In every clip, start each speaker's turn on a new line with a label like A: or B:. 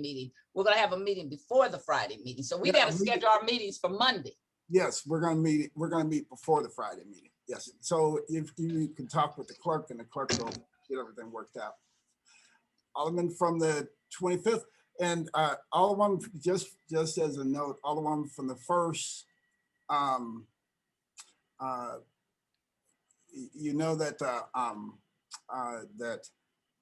A: meeting. We're gonna have a meeting before the Friday meeting, so we
B: Yeah,
A: gotta
B: we-
A: schedule our meetings for Monday.
B: Yes, we're gonna meet, we're gonna meet before the Friday meeting. Yes, so if you can talk with the clerk and the clerk will get everything worked out. Alderman from the twenty-fifth and uh Alderman, just, just as a note, Alderman from the first. um uh y- You know that uh um uh that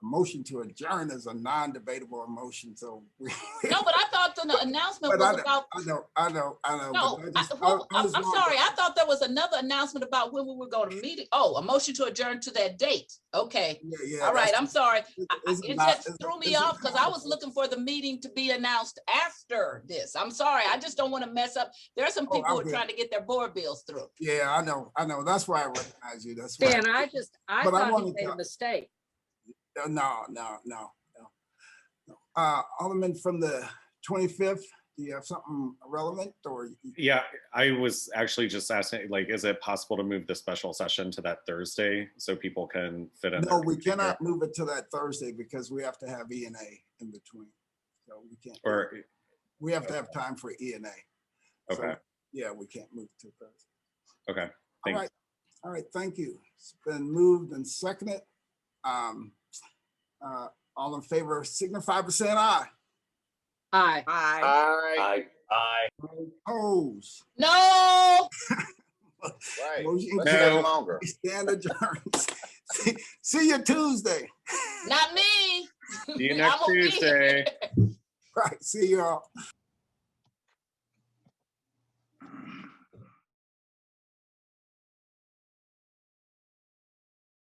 B: motion to adjourn is a non-debatable motion, so. we-
A: No, but I thought the announcement
B: But I
A: was
B: don't-
A: about,
B: I know, I know, I know.
A: no,
B: but I
A: I-
B: just- I-
A: well,
B: I
A: I'm I'm
B: just wanted to-
A: sorry, I thought there was another announcement about when we were going to meet. it. Oh, a motion to adjourn to that date. Okay,
B: Yeah, yeah.
A: all right,
B: that's-
A: I'm sorry.
B: it-
A: I- I-
B: it's
A: It
B: not-
A: just
B: it's-
A: threw me
B: it's-
A: off because I was looking for the meeting to be announced after this. I'm sorry, I just don't want to mess up. There are some
B: Oh,
A: people who
B: I'm
A: are
B: good.
A: trying to get their board bills through.
B: Yeah, I know, I know. That's why I recognize you. That's why.
C: Dan, I just, I
B: But I
C: thought he
B: wanted
C: made
B: to-
C: a mistake.
B: Uh, No, no, no, no. Uh, Alderman from the twenty-fifth, do you have something relevant or? you-
D: Yeah, I was actually just asking, like, is it possible to move the special session to that Thursday so people can fit in?
B: No,
D: their
B: we
D: computer?
B: cannot move it to that Thursday because we have to have E and A in between. So we can't,
D: Or, uh,
B: we have to have time for E and A. So,
D: okay,
B: Yeah, we can't move to Thursday.
D: okay.
B: All
D: Thanks.
B: right, all right, thank you. It's been moved and seconded. Um, uh, all in favor, signify by saying aye.
C: Aye.
A: Aye.
E: Aye. Aye.
B: Opposed.
A: No,
E: Right.
B: Motion
E: Let's
B: carries.
E: get longer.
B: We stand adjourned. See- See you Tuesday.
A: not me.
D: See you
A: I
D: next
A: will be here.
D: Tuesday.
B: Right, see y'all.